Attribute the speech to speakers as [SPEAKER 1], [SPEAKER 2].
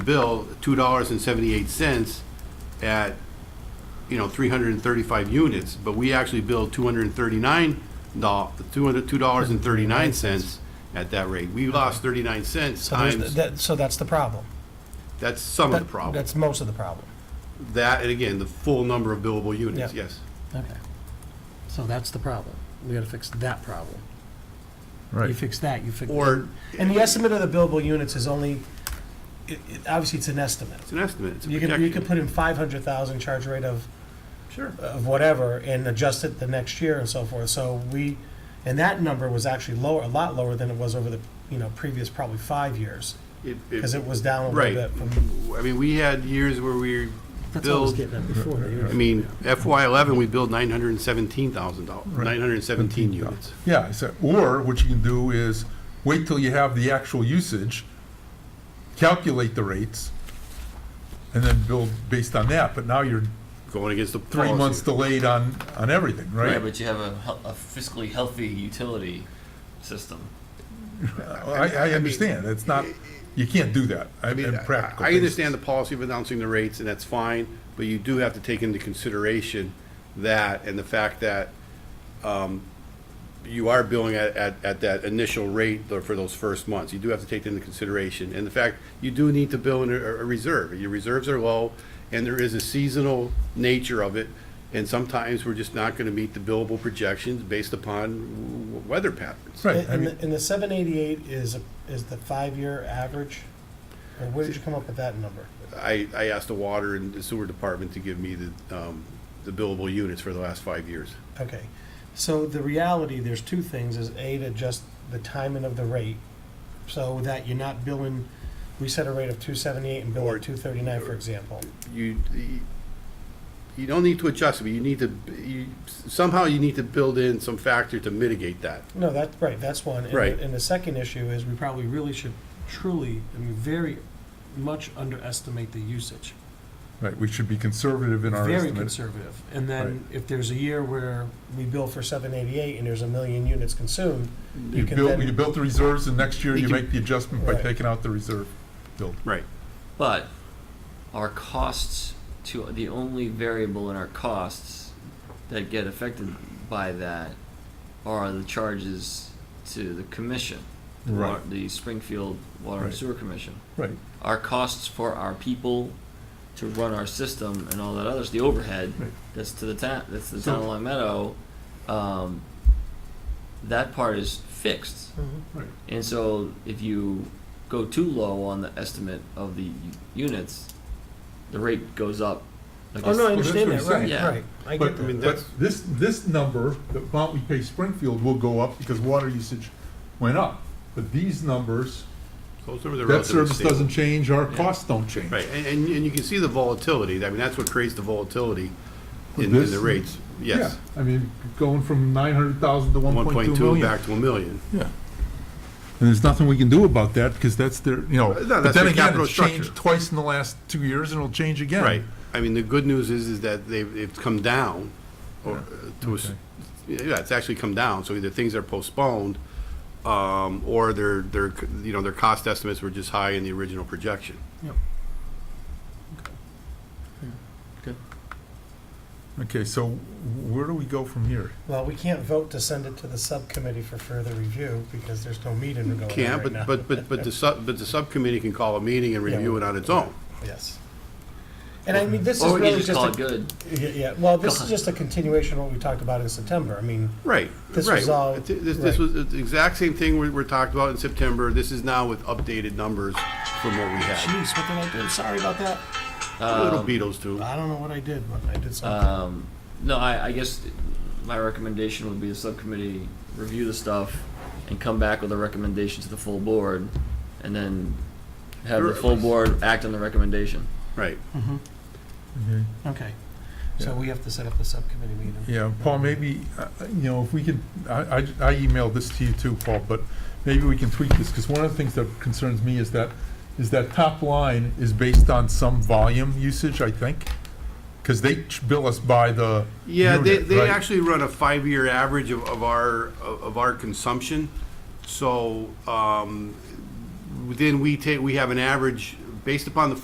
[SPEAKER 1] bill, two dollars and seventy-eight cents at, you know, three hundred and thirty-five units, but we actually billed two hundred and thirty-nine doll, two hundred, two dollars and thirty-nine cents at that rate. We lost thirty-nine cents
[SPEAKER 2] So there's,
[SPEAKER 1] times,
[SPEAKER 2] that, so that's the problem.
[SPEAKER 1] that's some of the
[SPEAKER 2] That-
[SPEAKER 1] problem.
[SPEAKER 2] That's most of the problem.
[SPEAKER 1] That, and again, the full number of billable units,
[SPEAKER 2] Yeah.
[SPEAKER 1] yes.
[SPEAKER 3] Okay. So that's the problem. We gotta fix that problem. You
[SPEAKER 4] Right.
[SPEAKER 3] fix that, you fix.
[SPEAKER 1] Or,
[SPEAKER 2] And the estimate of the billable units is only, it, it, obviously, it's an estimate.
[SPEAKER 1] it's an estimate, it's a
[SPEAKER 2] You could, you could
[SPEAKER 1] projection.
[SPEAKER 2] put in five hundred thousand charge rate of,
[SPEAKER 1] Sure.
[SPEAKER 2] of whatever and adjust it the next year and so forth. So we, and that number was actually lower, a lot lower than it was over the, you know, previous probably five years,
[SPEAKER 1] It-
[SPEAKER 2] because Uh, it was down a
[SPEAKER 1] Right.
[SPEAKER 2] little bit from.
[SPEAKER 1] I mean, we had years where we
[SPEAKER 3] That's what I was
[SPEAKER 1] billed
[SPEAKER 3] getting at before.
[SPEAKER 1] I mean, FY eleven, we billed nine hundred and seventeen thousand dollars, nine hundred and seventeen units.
[SPEAKER 4] Yeah, I said, or what you can do is wait till you have the actual usage, calculate the rates, and then build based on that, but now you're
[SPEAKER 1] Going against the
[SPEAKER 4] three
[SPEAKER 1] policy.
[SPEAKER 4] months delayed on, on everything,
[SPEAKER 5] Yeah,
[SPEAKER 4] right?
[SPEAKER 5] but you have a, hel- a fiscally healthy utility system.
[SPEAKER 4] I, I understand, it's not, you can't do that, I
[SPEAKER 1] I mean,
[SPEAKER 4] mean,
[SPEAKER 1] I
[SPEAKER 4] practical.
[SPEAKER 1] I understand the policy of announcing the rates, and that's fine, but you do have to take into consideration that and the fact that um, you are billing at, at, at that initial rate tho- for those first months. You do have to take that into consideration. And the fact, you do need to bill in a, a reserve. Your reserves are low, and there is a seasonal nature of it. And sometimes we're just not going to meet the billable projections based upon w- weather patterns.
[SPEAKER 4] Right, I
[SPEAKER 2] And
[SPEAKER 4] mean,
[SPEAKER 2] the, and the seven eighty-eight is, a- is the five-year average? Or where did you come up with that number?
[SPEAKER 1] I, I asked the water and sewer department to give me the, um, the billable units for the last five years.
[SPEAKER 2] Okay, so the reality, there's two things, is A, to adjust the timing of the rate, so that you're not billing, we set a rate of two seventy-eight and bill
[SPEAKER 1] Or-
[SPEAKER 2] at two thirty-nine, for example.
[SPEAKER 1] You, you don't need to adjust it, but you need to, you, somehow you need to build in some factor to mitigate that.
[SPEAKER 2] No, that's, right, that's one. And the-
[SPEAKER 1] Right.
[SPEAKER 2] And the second issue is, we probably really should truly, I mean, very much underestimate the usage.
[SPEAKER 4] right, we should be conservative in our
[SPEAKER 2] Very
[SPEAKER 4] estimate.
[SPEAKER 2] conservative. And then, if there's a year where we bill for seven eighty-eight and there's a million units consumed,
[SPEAKER 4] You
[SPEAKER 2] you can
[SPEAKER 4] built,
[SPEAKER 2] then.
[SPEAKER 4] you built the reserves, and next year
[SPEAKER 1] You
[SPEAKER 4] you
[SPEAKER 1] can-
[SPEAKER 4] make the adjustment by
[SPEAKER 2] Right.
[SPEAKER 4] taking out the reserve build.
[SPEAKER 1] Right.
[SPEAKER 5] But our costs to the only variable in our costs that get affected by that are the charges to the commission, the, wa-
[SPEAKER 4] Right.
[SPEAKER 5] the Springfield Water
[SPEAKER 4] Right.
[SPEAKER 5] and Sewer Commission.
[SPEAKER 4] Right,
[SPEAKER 5] Our costs for our people to run our system and all that others, the overhead
[SPEAKER 4] Right.
[SPEAKER 5] that's to the town, that's the
[SPEAKER 4] So-
[SPEAKER 5] town of Long Meadow. Um, that part is fixed.
[SPEAKER 2] Mhm.
[SPEAKER 4] right.
[SPEAKER 5] And so if you go too low on the estimate of the u- units, the rate goes up. Like
[SPEAKER 2] Oh, no, I
[SPEAKER 4] Well, that's
[SPEAKER 2] understand
[SPEAKER 4] what
[SPEAKER 2] that,
[SPEAKER 4] he's
[SPEAKER 2] right,
[SPEAKER 5] saying.
[SPEAKER 2] right. I
[SPEAKER 4] But,
[SPEAKER 2] get that.
[SPEAKER 4] but this, this number, the amount we pay Springfield will go up because water usage went up. But these numbers,
[SPEAKER 1] Those numbers are
[SPEAKER 4] that
[SPEAKER 1] relatively
[SPEAKER 4] service
[SPEAKER 1] stable.
[SPEAKER 4] doesn't change, our costs don't change.
[SPEAKER 1] Right, and, and and you can see the volatility, I mean, that's what creates the volatility
[SPEAKER 4] With
[SPEAKER 1] in, in
[SPEAKER 4] this?
[SPEAKER 1] the rates, yes.
[SPEAKER 4] Yeah, I mean, going from nine hundred thousand to one
[SPEAKER 1] One
[SPEAKER 4] point two
[SPEAKER 1] point two
[SPEAKER 4] million.
[SPEAKER 1] back to a million.
[SPEAKER 4] Yeah. And there's nothing we can do about that because that's their, you
[SPEAKER 1] No,
[SPEAKER 4] know, but
[SPEAKER 1] that's
[SPEAKER 4] then
[SPEAKER 1] their
[SPEAKER 4] again,
[SPEAKER 1] capital
[SPEAKER 4] it's changed
[SPEAKER 1] structure.
[SPEAKER 4] twice in the last two years and it'll change again.
[SPEAKER 1] Right, I mean, the good news is, is that they've, it's come down, or uh, to, a s- yeah, it's actually come down, so either things are postponed, um, or their, their, you know, their cost estimates were just high in the original projection.
[SPEAKER 4] Okay, so where do we go from here?
[SPEAKER 2] Well, we can't vote to send it to the subcommittee for further review because there's no meeting going on right now.
[SPEAKER 1] Can't, but, but, but, but the sub, but the subcommittee can call a meeting and
[SPEAKER 2] Yeah.
[SPEAKER 1] review it on its own.
[SPEAKER 2] Yes. And I mean, this is
[SPEAKER 5] Or we can
[SPEAKER 2] really
[SPEAKER 5] just
[SPEAKER 2] just
[SPEAKER 5] call it
[SPEAKER 2] a,
[SPEAKER 5] good.
[SPEAKER 2] yeah, yeah, well, this
[SPEAKER 5] Go
[SPEAKER 2] is
[SPEAKER 5] on.
[SPEAKER 2] just a continuation of what we talked about in September. I mean,
[SPEAKER 1] Right,
[SPEAKER 2] This
[SPEAKER 1] right.
[SPEAKER 2] was all-
[SPEAKER 1] Th- This, this
[SPEAKER 2] right.
[SPEAKER 1] was the exact same thing we, we talked about in September, this is now with updated numbers from what we had.
[SPEAKER 2] geez, what did I do? Sorry about that. Uh,
[SPEAKER 1] Little Beatles too.
[SPEAKER 2] I don't know what I did, but I did something.
[SPEAKER 5] Um, no, I, I guess my recommendation would be the subcommittee review the stuff and come back with a recommendation to the full board and then have the full board act on the recommendation.
[SPEAKER 1] Right.
[SPEAKER 2] Mhm.
[SPEAKER 4] Okay.
[SPEAKER 2] Okay. So we have to set up the subcommittee meeting.
[SPEAKER 4] Yeah, Paul, maybe, uh, you know, if we could, I, I I emailed this to you too, Paul, but maybe we can tweak this, because one of the things that concerns me is that, is that top line is based on some volume usage, I think, because they ch- bill us by the
[SPEAKER 1] Yeah, they,
[SPEAKER 4] unit,
[SPEAKER 1] they
[SPEAKER 4] right?
[SPEAKER 1] actually run a five-year average of, of our, of of our consumption. So, um, then we take, we have an average based upon the